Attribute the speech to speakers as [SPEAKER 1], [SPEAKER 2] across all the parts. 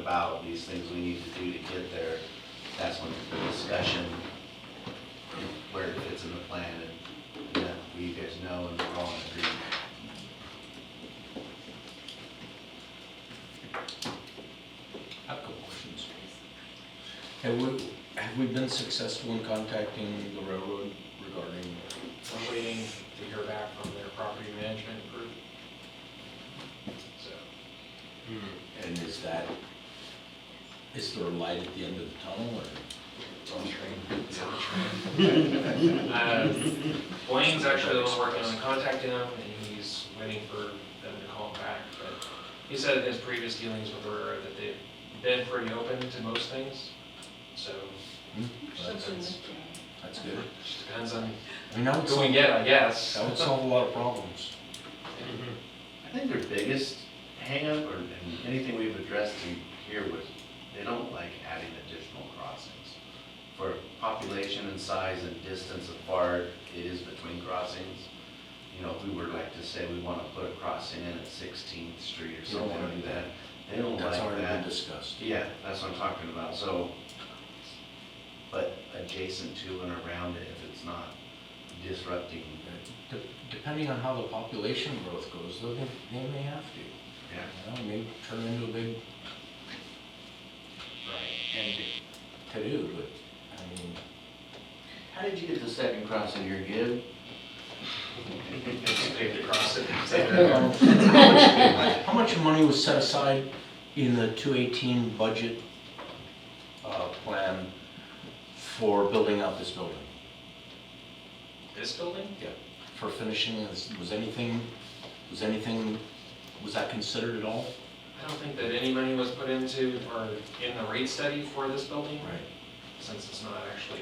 [SPEAKER 1] about these things we need to do to get there, that's when the discussion, where it fits in the plan, and, and that we guys know and we're all in agreement.
[SPEAKER 2] I've got questions. Have we, have we been successful in contacting the railroad regarding,
[SPEAKER 3] We're waiting to hear back from their property management group. So,
[SPEAKER 2] and is that, is there a light at the end of the tunnel or?
[SPEAKER 3] on train, it's on train. Uh, Blaine's actually the one working on contacting them, and he's waiting for them to call back. But he said in his previous dealings with the railroad that they've been pretty open to most things. So,
[SPEAKER 2] Hmm? That's- That's good.
[SPEAKER 3] just depends on
[SPEAKER 2] I mean, that would
[SPEAKER 3] who we
[SPEAKER 2] solve,
[SPEAKER 3] get, I guess.
[SPEAKER 2] that would solve a lot of problems.
[SPEAKER 1] I think their biggest hangup, or and anything we've addressed in here was, they don't like adding additional crossings. For population and size and distance apart it is between crossings. You know, if we were like to say we want to put a crossing in at Sixteenth Street or
[SPEAKER 2] They don't
[SPEAKER 1] something
[SPEAKER 2] wanna do
[SPEAKER 1] like that,
[SPEAKER 2] that.
[SPEAKER 1] they don't
[SPEAKER 2] That's
[SPEAKER 1] like
[SPEAKER 2] already been
[SPEAKER 1] that.
[SPEAKER 2] discussed.
[SPEAKER 1] Yeah, that's what I'm talking about, so, but adjacent to and around it, if it's not disrupting,
[SPEAKER 2] De- Depending on how the population growth goes, though, they, they may have to. You
[SPEAKER 1] yeah.
[SPEAKER 2] know, maybe turn into a big
[SPEAKER 3] Right.
[SPEAKER 2] and to-do, but, I mean,
[SPEAKER 1] How did you get the second crossing here, Gib?
[SPEAKER 3] Just paved across it.
[SPEAKER 2] How much money was set aside in the 218 budget uh, plan for building out this building?
[SPEAKER 3] This building?
[SPEAKER 2] For finishing this, was anything, was anything, was that considered at all?
[SPEAKER 3] I don't think that any money was put into or in the rate study for this building,
[SPEAKER 2] Right.
[SPEAKER 3] since it's not actually.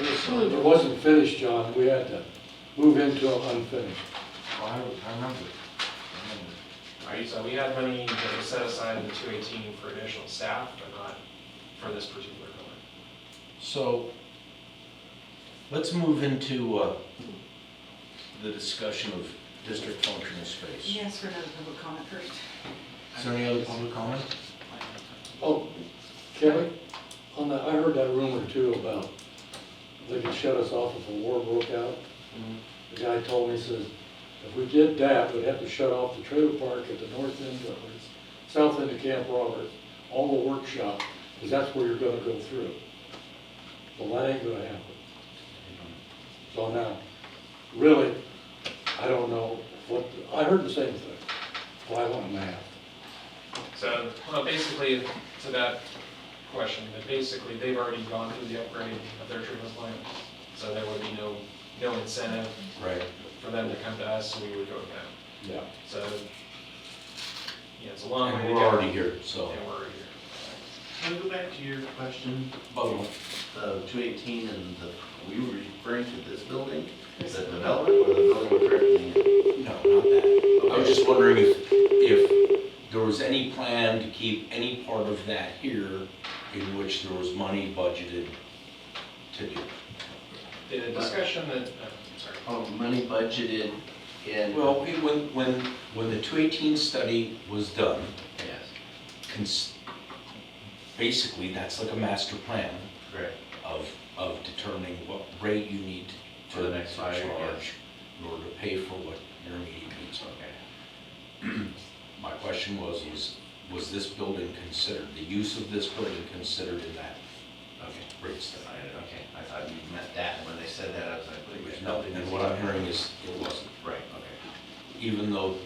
[SPEAKER 4] As soon as it wasn't finished, John, we had to move into it unfinished.
[SPEAKER 2] uh, I I remember. I remember.
[SPEAKER 3] Right, so we had money that was set aside in two eighteen for additional staff, but not for this particular building.
[SPEAKER 2] So, let's move into uh, the discussion of district functional space.
[SPEAKER 5] Yes, for another public comment first.
[SPEAKER 2] Is there any other public comment?
[SPEAKER 4] Oh, Kevin, on that, I heard that rumor too about they could shut us off if a war broke out.
[SPEAKER 2] Mm-hmm.
[SPEAKER 4] The guy told me, he says, if we did that, we'd have to shut off the trailer park at the north end of, or south end of Camp Roberts, all the workshop, because that's where you're gonna go through. Well, that ain't gonna happen. So now, really, I don't know what, I heard the same thing. Why want to map?
[SPEAKER 3] So, well, basically, to that question, that basically they've already gone through the upgrade of their treatment plant, so there would be no, no incentive
[SPEAKER 2] Right.
[SPEAKER 3] for them to come to us, so we would go with them.
[SPEAKER 4] Yeah.
[SPEAKER 3] So, yeah, it's a long way to
[SPEAKER 2] And
[SPEAKER 3] go.
[SPEAKER 2] we're already here, so.
[SPEAKER 3] And we're already here.
[SPEAKER 1] Can I go back to your question?
[SPEAKER 2] Bubble.
[SPEAKER 1] The two eighteen and the, we were referring to this building, the development or the building we're currently in?
[SPEAKER 2] No, not that. I was just wondering if, if there was any plan to keep any part of that here in which there was money budgeted to do.
[SPEAKER 3] The discussion that, oh, sorry.
[SPEAKER 1] Oh, money budgeted in.
[SPEAKER 2] Well, it- when, when, when the 218 study was done,
[SPEAKER 1] Yes,
[SPEAKER 2] cons- basically, that's like a master plan
[SPEAKER 1] correct.
[SPEAKER 2] of, of determining what rate you need to
[SPEAKER 1] For the next five years, yeah.
[SPEAKER 2] charge in order to pay for what your immediate needs are.
[SPEAKER 1] Okay.
[SPEAKER 2] My question was, was, was this building considered, the use of this building considered in that
[SPEAKER 1] Okay.
[SPEAKER 2] rate study?
[SPEAKER 1] I- Okay, I thought you meant that, and when they said that, I was like, wait, there's nothing.
[SPEAKER 2] And what I'm hearing is it wasn't,
[SPEAKER 1] Right, okay.
[SPEAKER 2] even though,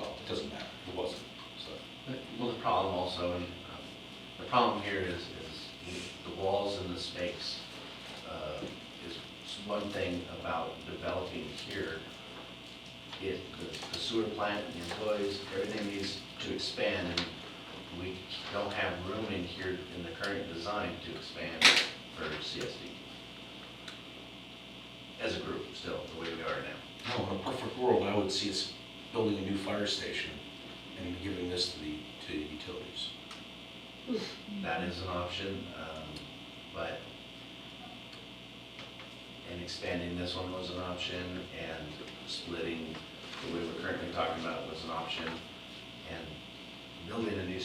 [SPEAKER 2] well, it doesn't matter, it wasn't, so.
[SPEAKER 1] Well, the problem also, and um, the problem here is, is the walls and the space uh, is one thing about developing here. It, the- the sewer plant, the employees, everything needs to expand, and we don't have room in here in the current design to expand for CSD. As a group, still, the way we are now.
[SPEAKER 2] No, in a perfect world, I would see us building a new fire station and giving this to the, to the utilities.
[SPEAKER 1] That is an option, um, but, and expanding this one was an option, and splitting the way we're currently talking about was an option, and building a new